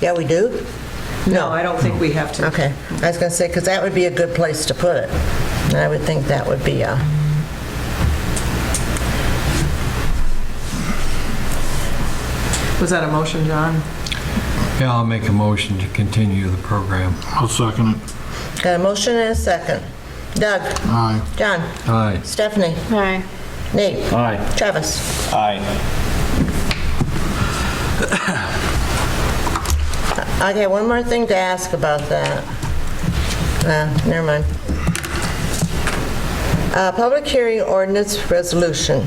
Yeah, we do? No, I don't think we have to. Okay, I was going to say, because that would be a good place to put it. I would think that would be uh, a... Was that a motion, John? Yeah, I'll make a motion to continue the program. I'll second it. Got a motion and a second. Doug? Aye. John? Aye. Stephanie? Aye. Nate? Aye. Travis? Aye. I got one more thing to ask about that. Uh, Never mind. Uh, Public hearing ordinance resolution.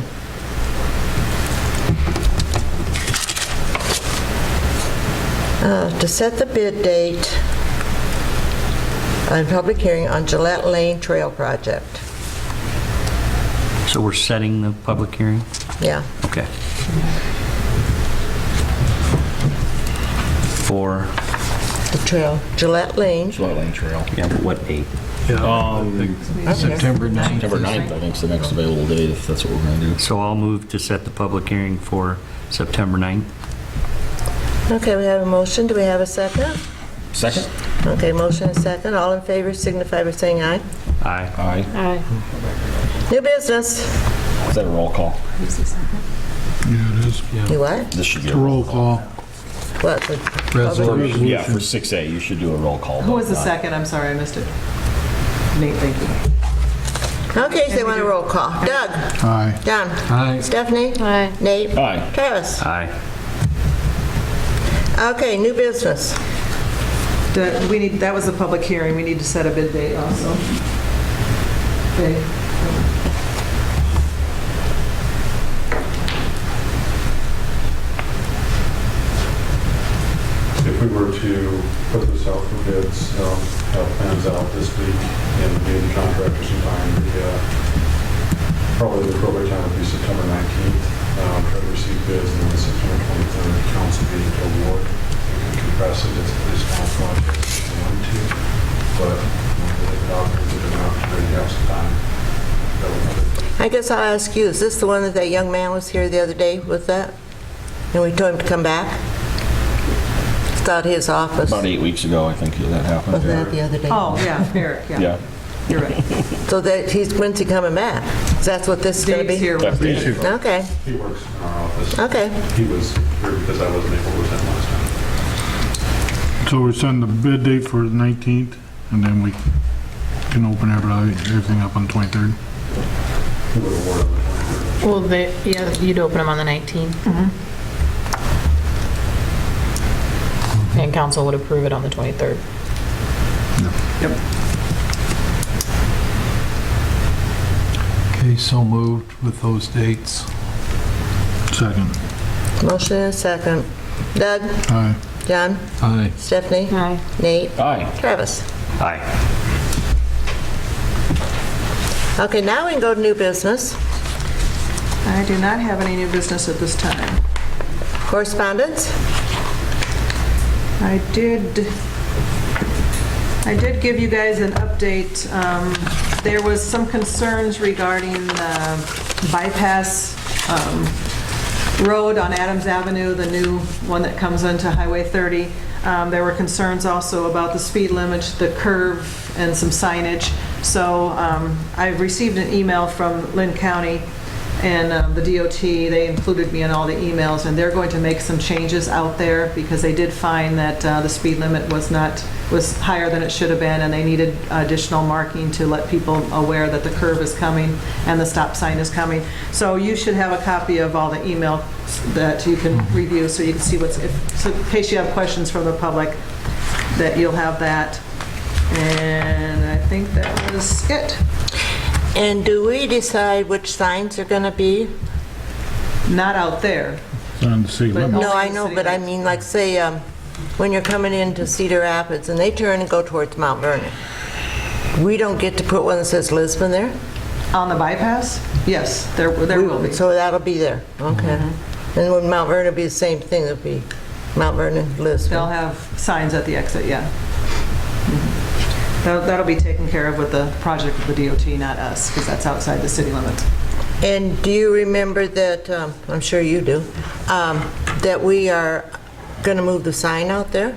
Uh, To set the bid date on public hearing on Gillette Lane Trail Project. So we're setting the public hearing? Yeah. Okay. For, The trail. Gillette Lane. Slow Lane Trail. yeah, but what date? September 9th. September 9th, I think, is the next available date, if that's what we're going to do. So I'll move to set the public hearing for September 9th. Okay, we have a motion. Do we have a second? Second? Okay, motion and second. All in favor signify by saying aye. Aye. Aye. Aye. New business. Is that a roll call? Yeah, it is. You what? This should be a Roll roll. call. What? Resolution. Yeah, for 6A, you should do a roll call. Who was the but not- second? I'm sorry, I missed it. Nate, thank you. Okay, so they want a roll call. Doug? Aye. Don? Aye. Stephanie? Aye. Nate? Aye. Travis? Aye. Okay, new business. That- We need, that was the public hearing, we need to set a bid date also. Okay. if we were to put this out for bids, um, have plans out this week and be the contractors in time, the, uh, probably the appropriate time would be September 19th, uh, try to receive bids, and then September 23rd, council meeting to award. We can compress it, it's, it's not project if you want to, but if not, if you don't have to, then you have some time. That would- I guess I'll ask you, is this the one that that young man was here the other day with that? And we told him to come back? It's out his office. About eight weeks ago, I think that happened. Wasn't that the other day? Oh, yeah, Eric, yeah, Yeah. you're right. So that, he's, when's he coming back? 'Cause That's what this is gonna Dave's be? here. That's the- Okay, He works in our office. okay. He was here because I wasn't able to attend last time. So we send the bid date for the 19th, and then we can open everybody, everything up on 23rd. He would award on the 23rd. Well, they, yeah, you'd open them on the 19th. And council would approve it on the 23rd. Okay, so moved with those dates. Second. Motion and a second. Doug? Aye. John? Aye. Stephanie? Aye. Nate? Aye. Travis? Aye. Okay, now we can go to new business. I do not have any new business at this time. Correspondence? I did, I did give you guys an update. Um, There was some concerns regarding the bypass um, road on Adams Avenue, the new one that comes into Highway 30. Um, There were concerns also about the speed limit, the curve, and some signage. So um, I received an email from Lynn County and um, the DOT, they included me in all the emails, and they're going to make some changes out there because they did find that uh, the speed limit was not, was higher than it should have been, and they needed additional marking to let people aware that the curve is coming and the stop sign is coming. So you should have a copy of all the emails that you can review, so you can see what's, if- so in case you have questions from the public, that you'll have that. And I think that was it. And do we decide which signs are going to be? Not out there, It's on the city But- limit. No, I know, but I mean, like, say, um, when you're coming into Cedar Rapids and they turn and go towards Mount Vernon, we don't get to put one that says Lisbon there? On the bypass? Yes, there, there will be. So that'll be there, okay. And when Mount Vernon will be the same thing, it'll be Mount Vernon, They'll Lisbon. have signs at the exit, yeah. Mhm. That'll that'll be taken care of with the project of the DOT, not us, because that's outside the city limits. And do you remember that, um, I'm sure you do, um, that we are going to move the sign out there?